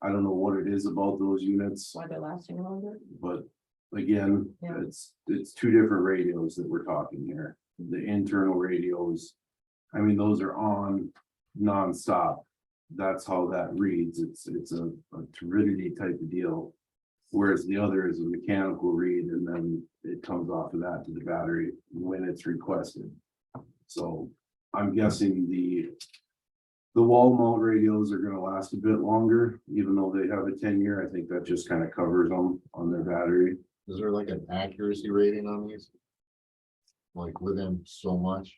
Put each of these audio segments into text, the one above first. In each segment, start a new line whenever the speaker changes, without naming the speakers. I don't know what it is about those units,
why they're lasting longer.
but again,
Yeah.
it's, it's two different radios that we're talking here. The internal radios, I mean, those are on nonstop. That's how that reads. It's, it's a a turbidity type of deal. Whereas the other is a mechanical read and then it comes off of that to the battery when it's requested. So I'm guessing the the wall mount radios are gonna last a bit longer, even though they have a ten year. I think that just kind of covers them on their battery.
Is there like an accuracy rating on these? Like within so much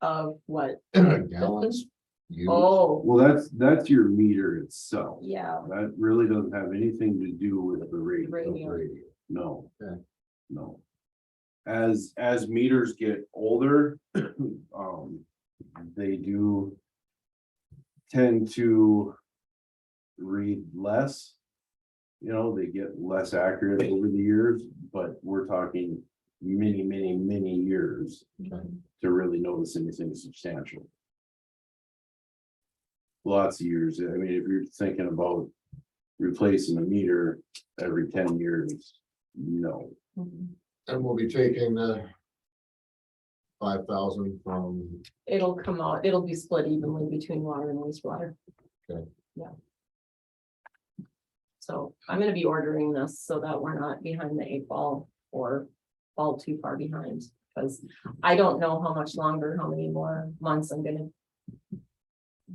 Of what?
gallons? used?
Oh,
Well, that's, that's your meter itself.
yeah,
That really doesn't have anything to do with the radio.
radio.
Radio.
No.
Okay.
No. As, as meters get older, um, they do. Tend to. Read less. You know, they get less accurate over the years, but we're talking many, many, many years
Okay.
to really notice anything substantial. Lots of years, I mean, if you're thinking about replacing a meter every ten years, no.
Mhm.
And we'll be taking the. Five thousand from,
It'll come out, it'll be split evenly between water and wastewater.
Okay.
Yeah. So I'm gonna be ordering this so that we're not behind the eight ball or fall too far behind. Cause I don't know how much longer, how many more months I'm gonna.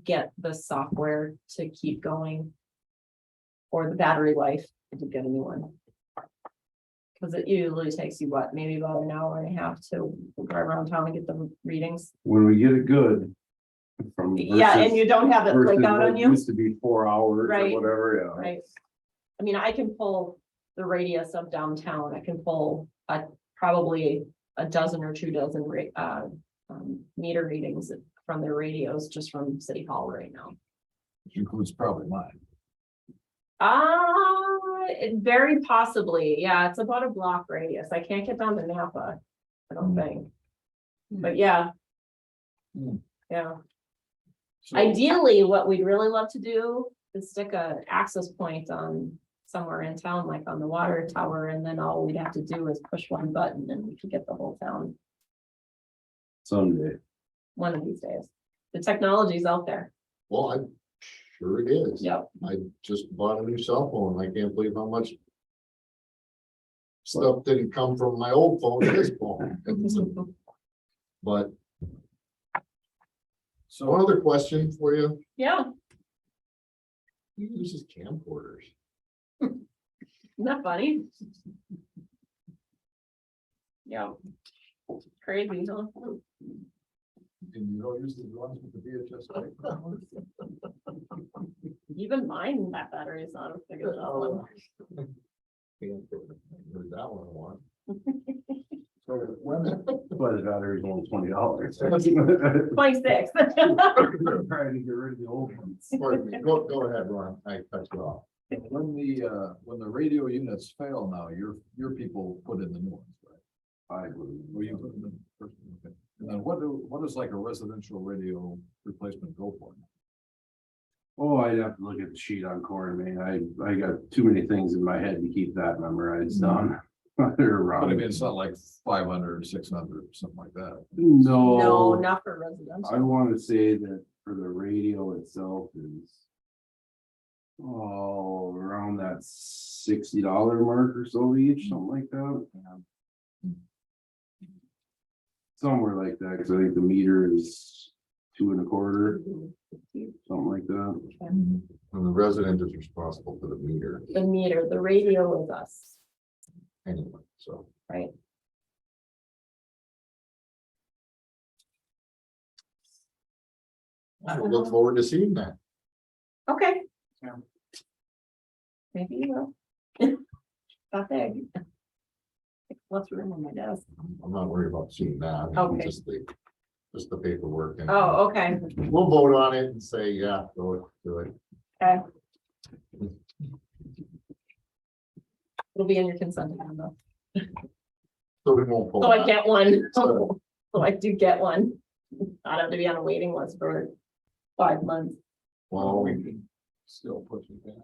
Get the software to keep going. Or the battery life to get a new one. Cause it usually takes you what, maybe about an hour and a half to drive around town and get the readings.
When we get it good. From.
Yeah, and
versus-
you don't have it like
versus
out
what
on you,
Used to be four hours or
Right.
whatever, yeah.
right? I mean, I can pull the radius of downtown, I can pull a, probably a dozen or two dozen ra- uh, um, meter readings from their radios just from city hall right now.
which includes probably mine.
Uh, it- very possibly, yeah, it's about a block radius, I can't get down to Napa, I don't
Hmm.
think. But yeah.
Hmm.
Yeah. Ideally, what we'd really love to do is stick a access point on somewhere in town, like on the water tower, and then all we'd have to do is push one button and we could get the whole town
Someday,
one of these days. The technology's out there.
Well, I'm sure it is.
Yep.
I just bought a new cell phone. I can't believe how much. Stuff didn't come from my old phone to this phone. But. So one other question for you.
Yeah,
Who uses camcorders?
isn't that funny? Yeah. Crazy, huh?
And you don't use the ones with the VHS. tape?
Even mine, that battery is not as big as that one.
Camcorder. Heard that one a lot.
So when- but the battery's only twenty dollars. Trying
Twenty-six.
to get rid of the old ones.
Pardon me. Go, go ahead, Ron. I cut you off.
When the, uh, when the radio units fail now, your, your people put in the new ones, right?
I would.
Or you put in the first one, okay. And then what do, what is like a residential radio replacement go for?
Oh, I'd have to look at the sheet on corn, man. I, I got too many things in my head to keep that memorized on. They're
But I mean,
wrong.
it's not like five hundred, six hundred, something like that.
No,
No,
not for
I
residential.
wanna say that for the radio itself is. Oh, around that sixty dollar mark or so each, something like that. Somewhere like that, cause I think the meter is two and a quarter,
Mm-hmm.
something like that.
And the resident is responsible for the meter
The meter, the radio is us,
anyway, so.
right?
I look forward to seeing that.
Okay.
Yeah.
Maybe you will. Not big. What's room on my desk?
I'm not worried about seeing that.
Okay.
Just the, just the paperwork. and-
Oh, okay,
We'll vote on it and say, yeah, go do it.
okay. It'll be in your consent agenda.
So we won't. vote
So Oh, I
on it.
get one,
So-
so Oh, I do get one. I don't have to be on a waiting list for five months.
Well, we still pushing back.